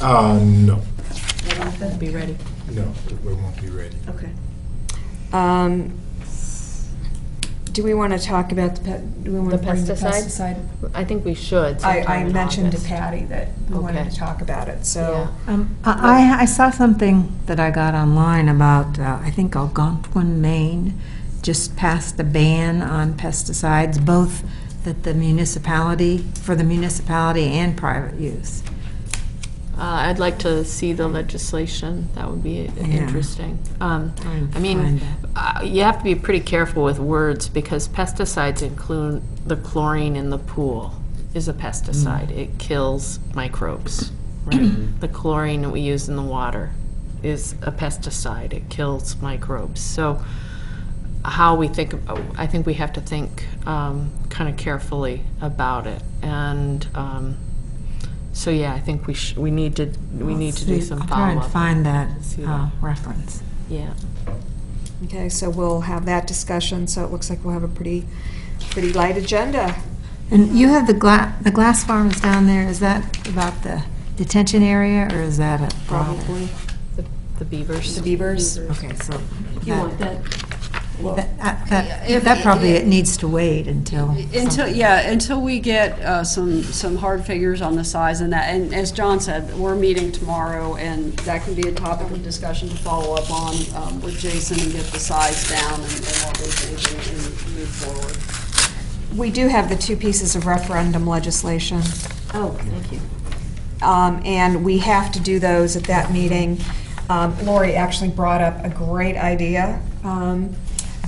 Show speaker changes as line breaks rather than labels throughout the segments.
Uh, no,
It'll Be ready.
no, we won't be ready.
Okay.
Um, Do we want to talk about the, pet- do we want
The
to bring the
pesticide?
pesticide?
I think we should.
I,
sometime
I
in
mentioned to
August.
Patty that we wanted
Okay.
to talk about it, so.
Um, I, I- I saw something that I got online about, uh, I think Algonquin, Maine, just passed a ban on pesticides, both that the municipality, for the municipality and private use.
Uh, I'd like to see the legislation. That would be interesting. Um,
Try and
I mean,
find
uh, you have to be pretty careful with words because pesticides include the chlorine in the pool is a
Mm.
pesticide. It kills microbes, right? The chlorine that we use in the water is a pesticide. It kills microbes. So how we think, I think we have to think um, kind of carefully about it. And um, so, yeah, I think we sh we need to, we need to do
See,
some
I'll try and
follow-up.
find that
See
uh,
that.
reference.
Yeah.
Okay, so we'll have that discussion, so it looks like we'll have a pretty, pretty light agenda.
And you have the gla, the glass farms down there, is that about the detention area, or is that a?
Probably.
The- The beavers.
The beavers?
Okay, so.
You want that?
That, that,
If-
that probably it needs to wait until.
Until, yeah, until we get uh, some, some hard figures on the size and that, and as John said, we're meeting tomorrow, and that can be a topic of discussion to follow up on um, with Jason and get the size down and and what we think and- and move forward.
We do have the two pieces of referendum legislation.
Oh, thank you.
um, and we have to do those at that meeting. Um, Lori actually brought up a great idea um,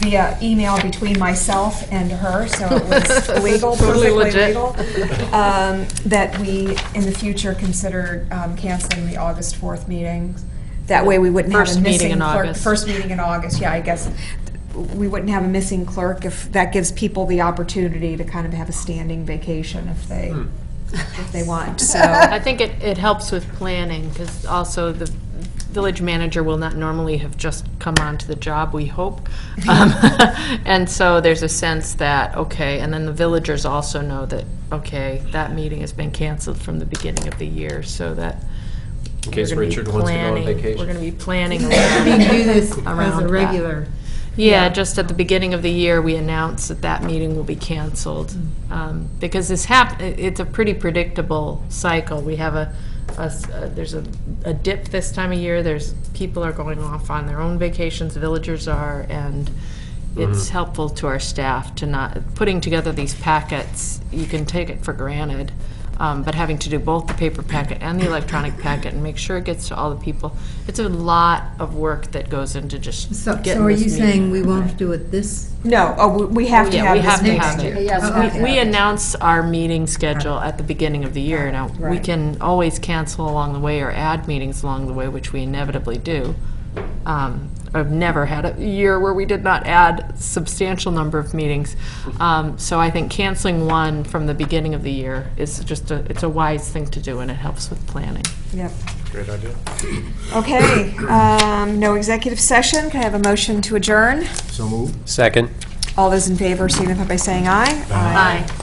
via email between myself and her, so it was legal,
Totally
perfectly
legit.
legal, um, that we, in the future, consider um, canceling the August 4th meeting. That way, we wouldn't have
First
a
meeting
missing
in
clerk.
August.
First meeting in August, yeah, I guess. We wouldn't have a missing clerk if, that gives people the opportunity to kind of have a standing vacation if they, if they want, so.
I think it, it helps with planning, because also the village manager will not normally have just come onto the job, we hope. Um, And so there's a sense that, okay, and then the villagers also know that, okay, that meeting has been canceled from the beginning of the year, so that.
In case
we're gonna be
Richard wants to go on
planning-
vacation.
We're gonna be planning around.
do this
Around that. Yeah, just at the beginning of the year, we announce that that meeting will be canceled.
Mm.
Um, Because this hap, i- it's a pretty predictable cycle. We have a, a s- a- there's a a dip this time of year, there's, people are going off on their own vacations, villagers are, and it's
Mm-hmm.
helpful to our staff to not, putting together these packets, you can take it for granted, um, but having to do both the paper packet and the electronic packet and make sure it gets to all the people, it's a lot of work that goes into just
So,
getting
so are
this
you
meeting.
saying we won't do it this?
No, oh, we- we have to
Yeah, we
have
have
this
to
next
have
year.
it.
Yes,
Okay.
We announce our meeting schedule at the beginning of the year. Now, we
Right.
can always cancel along the way or add meetings along the way, which we inevitably do. Um, I've never had a year where we did not add substantial number of meetings. Um, So I think canceling one from the beginning of the year is just a, it's a wise thing to do, and it helps with planning.
Yep.
Great idea.
Okay, um, no executive session, can I have a motion to adjourn?
So move.
Second.
All those in favor signify by saying aye.
Aye.